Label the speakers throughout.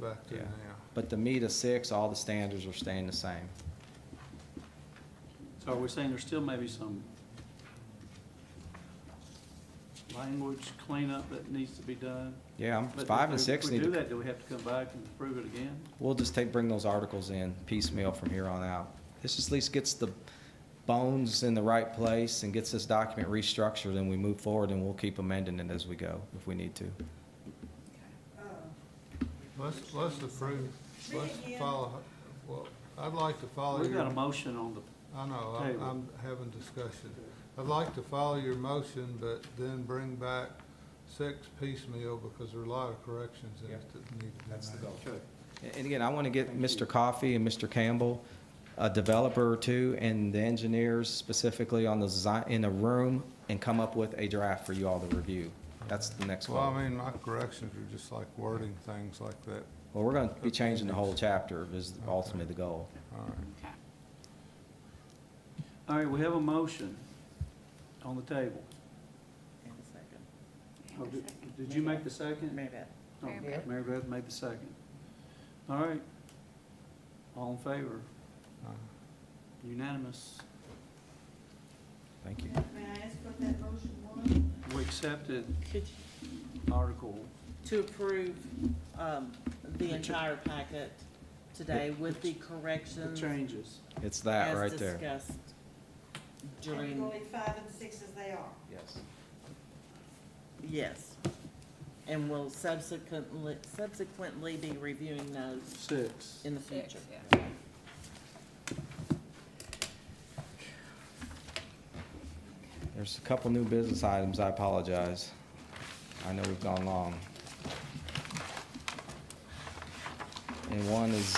Speaker 1: back to
Speaker 2: Yeah.
Speaker 1: now.
Speaker 2: But the meet of six, all the standards are staying the same.
Speaker 3: So are we saying there's still maybe some language cleanup that needs to be done?
Speaker 2: Yeah, I'm-
Speaker 3: But
Speaker 2: five
Speaker 3: if
Speaker 2: and
Speaker 3: we-
Speaker 2: six
Speaker 3: if
Speaker 2: need
Speaker 3: we do
Speaker 2: to,
Speaker 3: that, do we have to come back and approve it again?
Speaker 2: we'll just take, bring those articles in piecemeal from here on out. This just at least gets the bones in the right place and gets this document restructured and we move forward and we'll keep amending it as we go if we need to.
Speaker 1: Let's, let's approve,
Speaker 4: Read
Speaker 1: let's
Speaker 4: again.
Speaker 1: follow, well, I'd like to follow
Speaker 3: We got a
Speaker 1: your,
Speaker 3: motion on the,
Speaker 1: I know, I'm,
Speaker 3: table.
Speaker 1: I'm having discussion. I'd like to follow your motion, but then bring back six piecemeal because there are a lot of corrections in it that need to be made.
Speaker 3: okay,
Speaker 2: And- And again, I want to get
Speaker 3: Thank you.
Speaker 2: Mr. Coffey and Mr. Campbell, a developer or two, and the engineers specifically on the design, in a room, and come up with a draft for you all to review. That's the next
Speaker 1: Well,
Speaker 2: one.
Speaker 1: I mean, my corrections are just like wording things like that.
Speaker 2: Well, we're going to be changing the whole chapter is ultimately the goal.
Speaker 1: All right.
Speaker 3: all right, we have a motion on the table.
Speaker 5: And a second.
Speaker 3: Oh, Did did you make the second?
Speaker 5: Mary Beth.
Speaker 3: No,
Speaker 4: Mary Beth.
Speaker 3: Mary Beth made the second. All right, all in favor,
Speaker 1: Uh,
Speaker 3: unanimous,
Speaker 2: Thank you.
Speaker 4: May I ask what that motion was?
Speaker 3: we accepted
Speaker 5: Could,
Speaker 3: article.
Speaker 5: to approve, um, the
Speaker 3: The cha-
Speaker 5: entire packet today with the
Speaker 3: The
Speaker 5: corrections
Speaker 3: changes.
Speaker 2: It's that
Speaker 5: as
Speaker 2: right there.
Speaker 5: discussed
Speaker 4: And
Speaker 5: during,
Speaker 4: we'll leave five and six as they are.
Speaker 2: Yes.
Speaker 5: yes. And we will subsequently, subsequently be reviewing those
Speaker 3: Six.
Speaker 5: in the future.
Speaker 2: There's a couple new business items. I apologize. I know we've gone long. And one is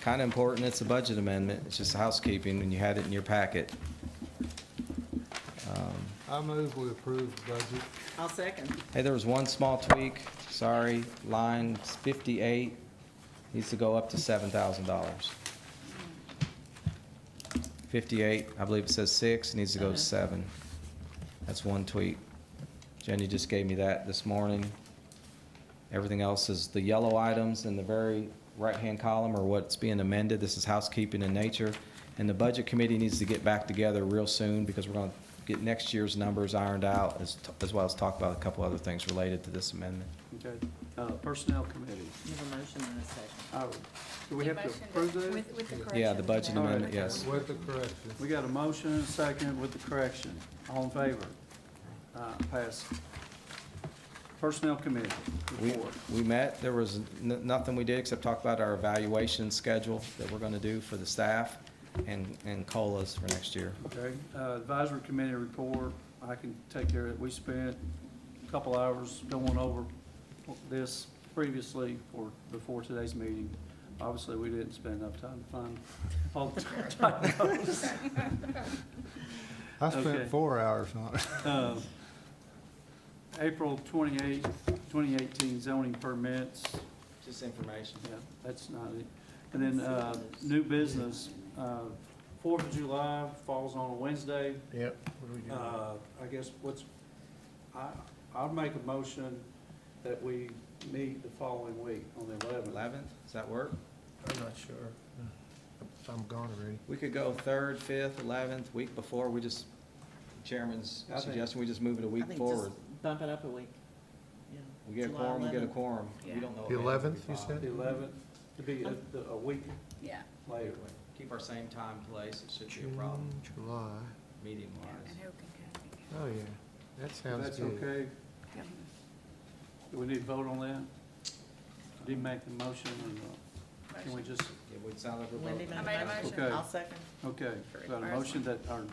Speaker 2: kind of important. It's a budget amendment. It's just housekeeping, and you had it in your packet. Um,
Speaker 1: I move we approve the budget.
Speaker 5: I'll second.
Speaker 2: Hey, there was one small tweak, sorry, line 58 needs to go up to $7,000. 58, I believe it says 6, needs to go to
Speaker 5: Uh-huh.
Speaker 2: 7. That's one tweak. Jenny just gave me that this morning. Everything else is the yellow items in the very right-hand column are what's being amended. This is housekeeping in nature. And the Budget Committee needs to get back together real soon because we're going to get next year's numbers ironed out as, as well as talk about a couple other things related to this amendment.
Speaker 3: Okay, uh, Personnel Committee.
Speaker 5: You have a motion and a second.
Speaker 3: Oh, Do we have to
Speaker 6: Motion
Speaker 3: approve that?
Speaker 6: With, with the correction.
Speaker 2: Yeah, the budget
Speaker 3: All right.
Speaker 2: amendment, yes.
Speaker 1: With the corrections.
Speaker 3: We got a motion and a second with the correction. All in favor? Uh, Pass. Personnel Committee
Speaker 2: We,
Speaker 3: report.
Speaker 2: we met, there was n- nothing we did except talk about our evaluation schedule that we're going to do for the staff and, and COLAs for next year.
Speaker 3: Okay, uh, Advisory Committee report, I can take care of it. We spent a couple hours going over this previously or before today's meeting. Obviously, we didn't spend enough time to find all the time notes.
Speaker 1: I spent
Speaker 3: Okay.
Speaker 1: four hours on it.
Speaker 3: Uh, April twenty-eighth, twenty eighteen zoning permits,
Speaker 2: Just information.
Speaker 3: yeah, that's not it. And then, uh, new business, uh, Fourth of July falls on a Wednesday.
Speaker 1: Yep. What do we
Speaker 3: Uh, I guess what's, I, I'll make a motion that we meet the following week on the eleventh.
Speaker 2: 11th, does that work?
Speaker 7: I'm not sure. I'm gone already.
Speaker 2: We could go third, fifth, eleventh, week before, we just, chairman's
Speaker 3: I think-
Speaker 2: suggestion, we just move it a
Speaker 5: I
Speaker 2: week
Speaker 5: think
Speaker 2: forward.
Speaker 5: just Bump it up a week. Yeah.
Speaker 2: We get a
Speaker 5: July
Speaker 2: quorum, we get a
Speaker 5: 11th.
Speaker 2: quorum. We
Speaker 6: Yeah.
Speaker 2: don't know.
Speaker 7: The
Speaker 2: if it'll be
Speaker 7: 11th, you
Speaker 2: filed.
Speaker 7: said?
Speaker 3: The eleventh, to be a, the- a week
Speaker 6: Yeah,
Speaker 3: later.
Speaker 2: Keep our same time, place, it should be a
Speaker 7: June,
Speaker 2: problem,
Speaker 7: July.
Speaker 2: meeting
Speaker 6: and
Speaker 2: wise.
Speaker 6: who can
Speaker 7: Oh, yeah. That
Speaker 3: If
Speaker 7: sounds
Speaker 3: that's
Speaker 7: good.
Speaker 3: okay,
Speaker 6: come?
Speaker 3: do we need to vote on that? Did you make the motion or not? Can we just,
Speaker 2: It would sound like we're
Speaker 5: Wendy
Speaker 2: voting.
Speaker 5: made
Speaker 6: I made a motion.
Speaker 3: Okay.
Speaker 5: I'll second.
Speaker 3: okay, got a motion that our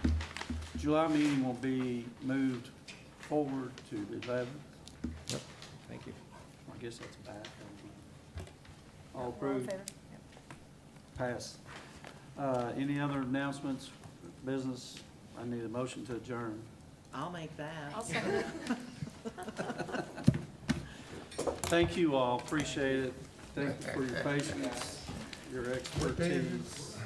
Speaker 3: July meeting will be moved forward to the eleventh.
Speaker 2: Thank you.
Speaker 3: I guess that's back. All approved? Pass. Uh, Any other announcements, business? I need a motion to adjourn.
Speaker 5: I'll make that.
Speaker 6: I'll second it.
Speaker 3: Thank you all, appreciate it. Thank you for your patience, your expertise.